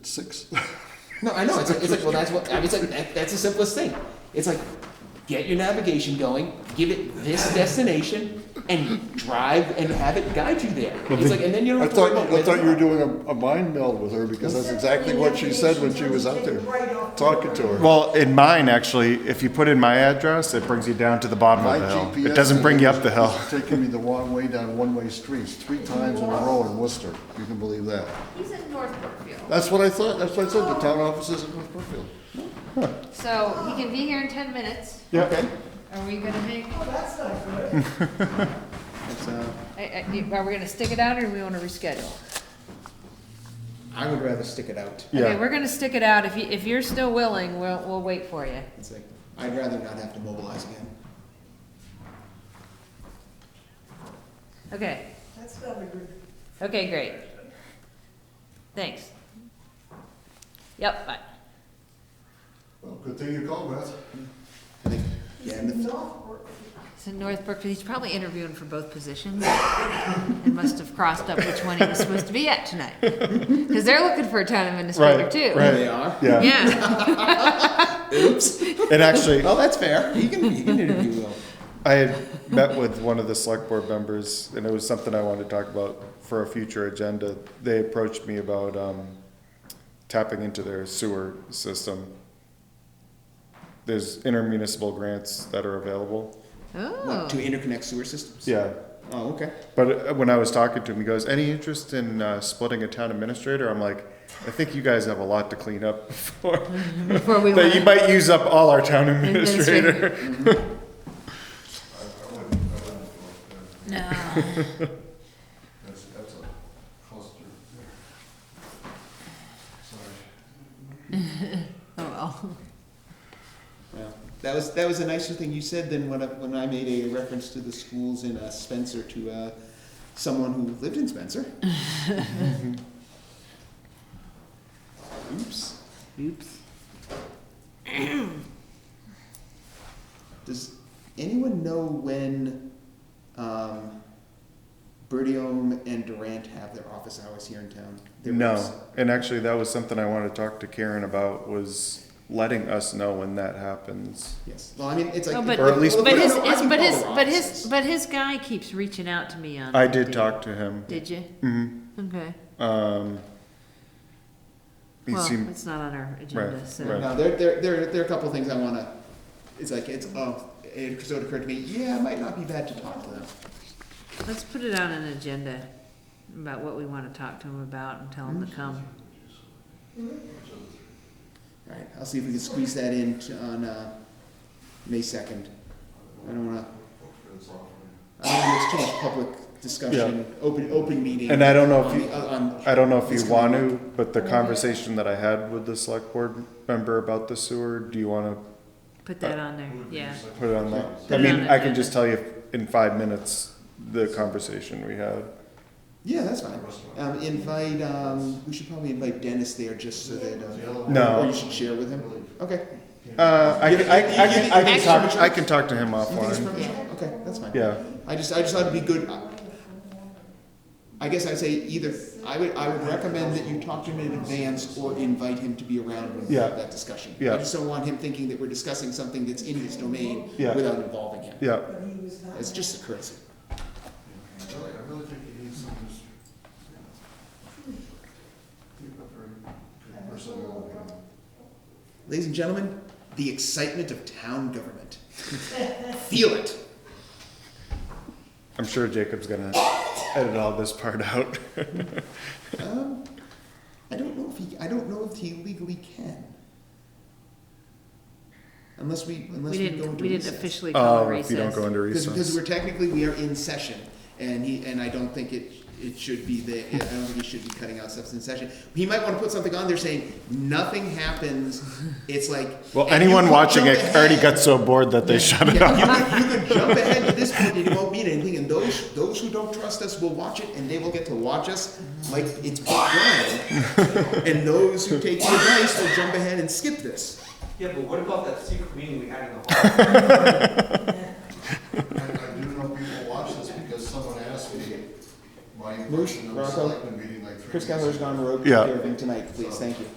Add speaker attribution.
Speaker 1: It's six.
Speaker 2: No, I know. It's like, it's like well, that's what I mean, it's like. That, that's the simplest thing. It's like get your navigation going, give it this destination, and drive and have it guide you there. It's like, and then you don't.
Speaker 1: I
Speaker 2: have to worry
Speaker 1: thought,
Speaker 2: about
Speaker 1: I
Speaker 2: whether-
Speaker 1: thought you were doing a, a mind meld with her because that's exactly what she said when she was out there talking to her.
Speaker 3: Well, in mine, actually, if you put in my address, it brings you down to the bottom
Speaker 1: My
Speaker 3: of the hill.
Speaker 1: GPS
Speaker 3: It doesn't bring you up the hill.
Speaker 1: is Taking me the wrong way down one-way streets three times in a row in Worcester. You can believe that.
Speaker 4: He's in North Brookfield,
Speaker 1: That's what I thought. That's what I said. The town office is in North Brookfield.
Speaker 4: so he can be here in ten minutes.
Speaker 1: Okay.
Speaker 4: Are we gonna make,
Speaker 5: That's, uh,
Speaker 4: I- I- are we gonna stick it out or do we wanna reschedule?
Speaker 5: I would rather stick it out.
Speaker 4: Okay,
Speaker 3: Yeah.
Speaker 4: we're gonna stick it out. If you, if you're still willing, we'll, we'll wait for you.
Speaker 5: It's like, I'd rather not have to mobilize again.
Speaker 4: Okay. That's not a good. Okay, great. Thanks. Yep, bye.
Speaker 1: Well, good thing you called, Beth.
Speaker 5: I think, yeah, and if-
Speaker 4: So North Brookfield, he's probably interviewing for both positions and must have crossed up which one he was supposed to be at tonight. Cause they're looking for a town administrator
Speaker 3: Right,
Speaker 4: too.
Speaker 3: right.
Speaker 5: they are.
Speaker 3: Yeah,
Speaker 4: Yeah,
Speaker 5: Oops.
Speaker 3: it actually,
Speaker 5: Well, that's fair. He can, he can interview uh, Will.
Speaker 3: I had met with one of the select board members, and it was something I wanted to talk about for a future agenda. They approached me about, um, tapping into their sewer system. There's intermunicipal grants that are available.
Speaker 4: oh,
Speaker 5: What, to interconnect sewer systems?
Speaker 3: Yeah,
Speaker 5: Oh, okay.
Speaker 3: But uh, when I was talking to him, he goes, "Any interest in uh, splitting a town administrator?" I'm like, "I think you guys have a lot to clean up before
Speaker 4: before we
Speaker 3: that. You
Speaker 4: went,
Speaker 3: might use up all our town administrator." Mm-hmm.
Speaker 4: no.
Speaker 1: That's, that's a cluster. Sorry.
Speaker 4: Oh, well.
Speaker 5: Yeah. That was, that was a nicer thing you said than when I, when I made a reference to the schools in uh, Spencer to uh, someone who lived in Spencer. Oops.
Speaker 4: Oops.
Speaker 5: Does anyone know when um, Bertium and Durant have their office hours here in town? Their reps?
Speaker 3: No, and actually, that was something I wanted to talk to Karen about was letting us know when that happens.
Speaker 5: Yes. Well, I mean, it's like,
Speaker 4: Oh, but-
Speaker 3: Or at least-
Speaker 5: Well,
Speaker 4: But
Speaker 5: no,
Speaker 4: his,
Speaker 5: no, I
Speaker 4: his-
Speaker 5: can
Speaker 4: but
Speaker 5: call
Speaker 4: his,
Speaker 5: their
Speaker 4: but his,
Speaker 5: offices.
Speaker 4: but his guy keeps reaching out to me on.
Speaker 3: I did talk to him.
Speaker 4: Did you?
Speaker 3: Mhm.
Speaker 4: Okay.
Speaker 3: Um, he
Speaker 4: Well,
Speaker 3: seemed
Speaker 4: it's not on our agenda, so.
Speaker 3: right.
Speaker 5: No, there, there, there, there are a couple things I want to. It's like it's oh, it sort of occurred to me. Yeah, it might not be bad to talk to them.
Speaker 4: Let's put it on an agenda about what we want to talk to him about and tell him to come.
Speaker 5: All right, I'll see if we can squeeze that in to- on uh, May second. I don't want to. I don't want to exchange public discussion, open open meeting.
Speaker 3: And I don't know if
Speaker 5: on
Speaker 3: you-
Speaker 5: the- on-
Speaker 3: I don't know if
Speaker 5: It's
Speaker 3: you want
Speaker 5: coming
Speaker 3: to, but the conversation that I had with the select board member about the sewer, do you want to
Speaker 4: Put that on there, yeah.
Speaker 3: put it on that?
Speaker 4: Put
Speaker 3: I
Speaker 4: it
Speaker 3: mean,
Speaker 4: on
Speaker 3: I
Speaker 4: it,
Speaker 3: can
Speaker 4: yeah.
Speaker 3: just tell you in five minutes the conversation we had.
Speaker 5: Yeah, that's fine. Um, invite. Um, we should probably invite Dennis there just so that. Uh,
Speaker 3: No.
Speaker 5: Or you should share with him. Okay.
Speaker 3: Uh, I can, I can- I can, I can
Speaker 5: Actually-
Speaker 3: talk, I can talk to him
Speaker 5: You think it's
Speaker 3: offline.
Speaker 5: premature? Okay, that's fine.
Speaker 3: Yeah,
Speaker 5: I just, I just thought it'd be good. I guess I'd say either, I would, I would recommend that you talk to him in advance or invite him to be around when we
Speaker 3: Yeah.
Speaker 5: have that discussion.
Speaker 3: Yeah.
Speaker 5: I just don't want him thinking that we're discussing something that's in his domain
Speaker 3: Yeah.
Speaker 5: without involving him.
Speaker 3: yeah.
Speaker 5: It's just a courtesy.
Speaker 1: Really, I really think you need some just. You've got very good personality.
Speaker 5: Ladies and gentlemen, the excitement of town government. Feel it.
Speaker 3: I'm sure Jacob's gonna edit all this part out.
Speaker 5: Um, I don't know if he, I don't know if he legally can. Unless we, unless
Speaker 4: We
Speaker 5: we go into
Speaker 4: didn't, we didn't
Speaker 5: recess.
Speaker 4: officially call a
Speaker 3: Oh, if you don't
Speaker 4: recess.
Speaker 3: go into
Speaker 5: Because, because
Speaker 3: recess.
Speaker 5: we're technically, we are in session, and he, and I don't think it, it should be the, I don't think he should be cutting out stuff in session. He might wanna put something on there saying, nothing happens, it's like.
Speaker 3: Well,
Speaker 5: and you
Speaker 3: anyone
Speaker 5: could
Speaker 3: watching
Speaker 5: jump
Speaker 3: it already
Speaker 5: ahead.
Speaker 3: got so bored that they shut it off.
Speaker 5: Yeah, You could, you could jump ahead to this point, and it won't mean anything, and those, those who don't trust us will watch it, and they will get to watch us like it's Bob Ryan. And those who take the advice will jump ahead and skip this.
Speaker 6: Yeah, but what about that secret meeting we had in the hall?
Speaker 1: I I do know people watch this because someone asked me,
Speaker 7: my
Speaker 5: Bruce,
Speaker 7: impression of the
Speaker 5: Rocco,
Speaker 7: selectmen meeting like three
Speaker 5: Chris
Speaker 7: weeks ago.
Speaker 5: Keller's gone rogue
Speaker 1: Yeah.
Speaker 5: with everything tonight, please, thank you.